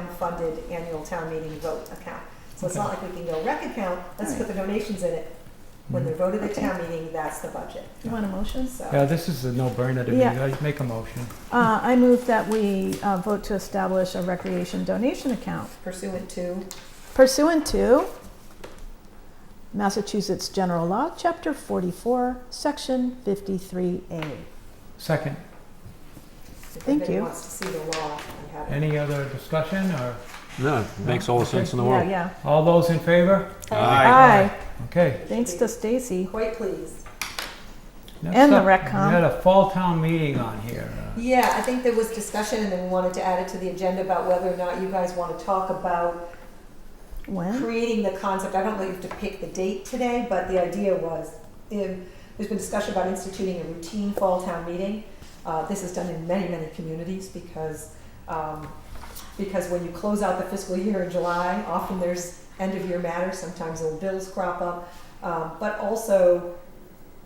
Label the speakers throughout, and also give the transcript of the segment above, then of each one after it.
Speaker 1: town-funded annual town meeting vote account. So it's not like we can go rec account, let's put the donations in it. When
Speaker 2: Mm-hmm.
Speaker 1: they're voted at town meeting, that's the budget,
Speaker 2: You want a motion?
Speaker 1: so.
Speaker 3: Yeah, this is a no-brainer to me.
Speaker 2: Yeah.
Speaker 3: I make a motion.
Speaker 2: Uh, I move that we uh, vote to establish a recreation donation account
Speaker 1: Pursuant to,
Speaker 2: pursuant to Massachusetts General Law, Chapter 44, Section 53A.
Speaker 3: Second,
Speaker 1: if
Speaker 2: Thank
Speaker 1: anybody
Speaker 2: you.
Speaker 1: wants to see the law, I have it.
Speaker 3: any other discussion or
Speaker 4: No, it makes all the sense in the
Speaker 2: Yeah,
Speaker 4: world.
Speaker 2: yeah.
Speaker 3: all those in favor?
Speaker 2: Aye.
Speaker 3: Okay.
Speaker 2: Thanks to Stacy
Speaker 1: Quite pleased.
Speaker 3: next
Speaker 2: and the
Speaker 3: up,
Speaker 2: rec
Speaker 3: We had
Speaker 2: com.
Speaker 3: a fall town meeting on here. Uh,
Speaker 1: Yeah, I think there was discussion and then we wanted to add it to the agenda about whether or not you guys want to talk about
Speaker 2: When?
Speaker 1: creating the concept. I don't know if you have to pick the date today, but the idea was, um, there's been discussion about instituting a routine fall town meeting. Uh, this is done in many, many communities because, um, because when you close out the fiscal year in July, often there's end of year matters, sometimes old bills crop up. Um, but also,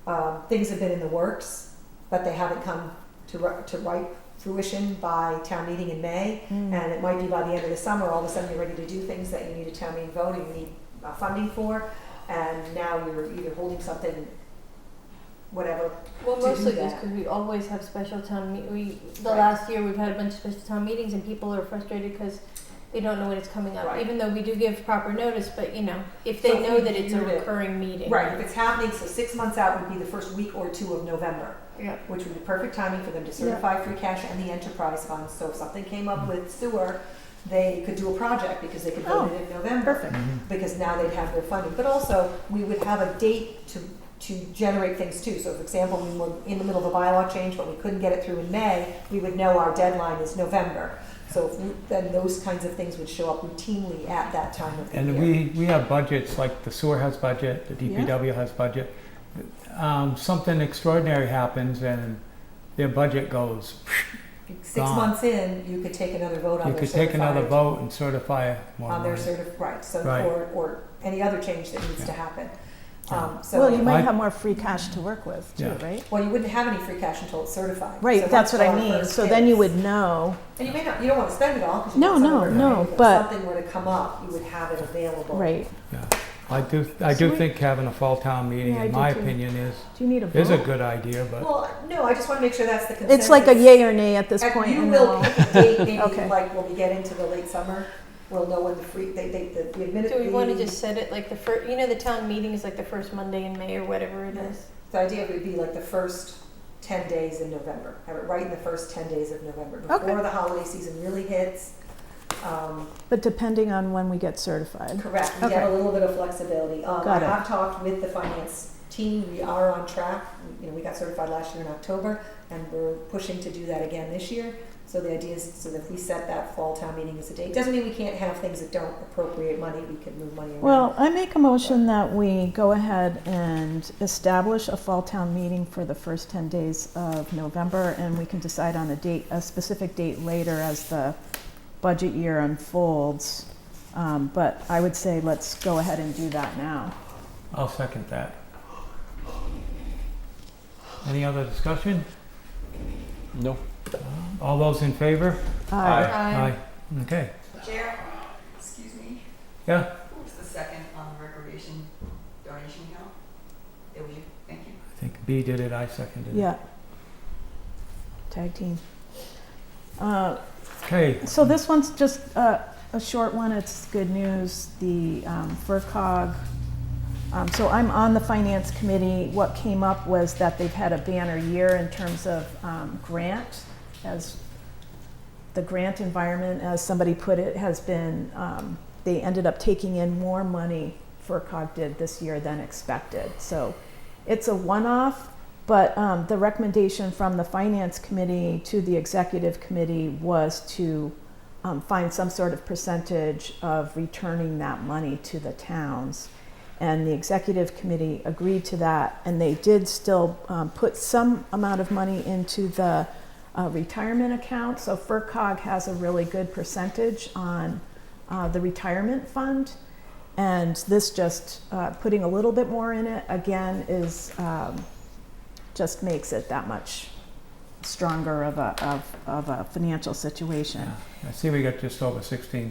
Speaker 1: um, things have been in the works, but they haven't come to, ri- to ripe fruition by town meeting in May.
Speaker 2: Hmm. Mm.
Speaker 1: And it might be by the end of the summer, all of a sudden you're ready to do things that you need a town meeting vote and you need uh, funding for. And now you're either holding something, whatever.
Speaker 5: Well,
Speaker 1: to do
Speaker 5: mostly just
Speaker 1: that.
Speaker 5: because we always have special town meet. We the
Speaker 1: Right.
Speaker 5: last year we've had a bunch of special town meetings and people are frustrated because they don't know when it's coming up.
Speaker 1: Right.
Speaker 5: Even though we do give proper notice, but you know if they
Speaker 1: So if
Speaker 5: know
Speaker 1: we
Speaker 5: that it's a
Speaker 1: viewed it-
Speaker 5: recurring meeting,
Speaker 1: Right, if it's happening, so six months out would be the first week or two of November,
Speaker 5: Yeah.
Speaker 1: which would be perfect timing for them to certify free cash and the enterprise funds. So if something came up with sewer, they could do a project because they could vote it in November.
Speaker 2: Perfect.
Speaker 3: mhm.
Speaker 1: because now they'd have their funding. But also, we would have a date to, to generate things too. So for example, we were in the middle of a bylaw change, but we couldn't get it through in May, we would know our deadline is November. So if we- then those kinds of things would show up routinely at that time of the year.
Speaker 3: And we, we have budgets, like the sewer has budget, the DPW has budget. Um, something extraordinary happens and their budget goes.
Speaker 1: Six
Speaker 3: gone.
Speaker 1: months in, you could take another vote on
Speaker 3: You
Speaker 1: their
Speaker 3: could take another
Speaker 1: certified,
Speaker 3: vote and certify more
Speaker 1: on their
Speaker 3: money.
Speaker 1: certif, right, so,
Speaker 3: Right.
Speaker 1: or, or any other change that needs to happen. Um, so.
Speaker 2: Well, you might
Speaker 3: I-
Speaker 2: have more free cash to work with too,
Speaker 3: Yeah.
Speaker 2: right?
Speaker 1: Well, you wouldn't have any free cash until it's certified. So
Speaker 2: Right,
Speaker 1: once
Speaker 2: that's what I
Speaker 1: our
Speaker 2: mean.
Speaker 1: first
Speaker 2: So then you
Speaker 1: hits-
Speaker 2: would know.
Speaker 1: And you may not, you don't want to spend it all because you
Speaker 2: No,
Speaker 1: want some
Speaker 2: no,
Speaker 1: of it,
Speaker 2: no,
Speaker 1: right? If
Speaker 2: but-
Speaker 1: something were to come up, you would have it available.
Speaker 2: Right.
Speaker 3: I do, I do
Speaker 2: So we-
Speaker 3: think having a fall town meeting,
Speaker 2: Yeah, I
Speaker 3: in
Speaker 2: do
Speaker 3: my
Speaker 2: too.
Speaker 3: opinion, is,
Speaker 2: Do you need a vote?
Speaker 3: is a good idea, but
Speaker 1: Well, no, I just want to make sure that's the consensus.
Speaker 2: It's like a yay or nay at this
Speaker 1: And
Speaker 2: point.
Speaker 1: Uh, You
Speaker 2: and
Speaker 1: will
Speaker 2: we'll-
Speaker 1: pick a date, maybe
Speaker 2: Okay.
Speaker 1: like when we get into the late summer, we'll know when the free, they, they, the
Speaker 5: Do we want to
Speaker 1: administrative,
Speaker 5: just set it like the first? You know, the town meeting is like the first Monday in May or whatever it is.
Speaker 1: the idea would be like the first ten days in November. Have it right in the first ten days of November, before
Speaker 2: Okay.
Speaker 1: the holiday season really hits. Um,
Speaker 2: But depending on when we get certified.
Speaker 1: Correct, we have a
Speaker 2: Okay.
Speaker 1: little bit of flexibility. Um, I
Speaker 2: Got it.
Speaker 1: have talked with the finance team, we are on track. You know, we got certified last year in October, and we're pushing to do that again this year. So the idea is, so that if we set that fall town meeting as a date, doesn't mean we can't have things that don't appropriate money, we can move money around.
Speaker 2: Well, I make a motion that we go ahead and establish a fall town meeting for the first 10 days of November, and we can decide on a date, a specific date later as the budget year unfolds. Um, But I would say let's go ahead and do that now.
Speaker 3: I'll second that. Any other discussion?
Speaker 4: No.
Speaker 3: All those in favor?
Speaker 2: Aye.
Speaker 5: Aye.
Speaker 3: Okay,
Speaker 6: Chair, excuse me,
Speaker 3: yeah,
Speaker 6: who was the second on the recreation donation count? It was you, thank you.
Speaker 3: I think B did it, I seconded it.
Speaker 2: Yeah. Tag team. Uh,
Speaker 3: Okay,
Speaker 2: So this one's just a, a short one, it's good news, the um, FERCog. Um, so I'm on the finance committee, what came up was that they've had a banner year in terms of um, grant, as the grant environment, as somebody put it, has been, um, they ended up taking in more money, FERCog did this year than expected. So it's a one-off, but um, the recommendation from the finance committee to the executive committee was to um, find some sort of percentage of returning that money to the towns. And the executive committee agreed to that, and they did still um, put some amount of money into the uh, retirement account. So FERCog has a really good percentage on uh, the retirement fund. And this just uh, putting a little bit more in it again is um, just makes it that much stronger of a, of, of a financial situation.
Speaker 3: I see we got just over sixteen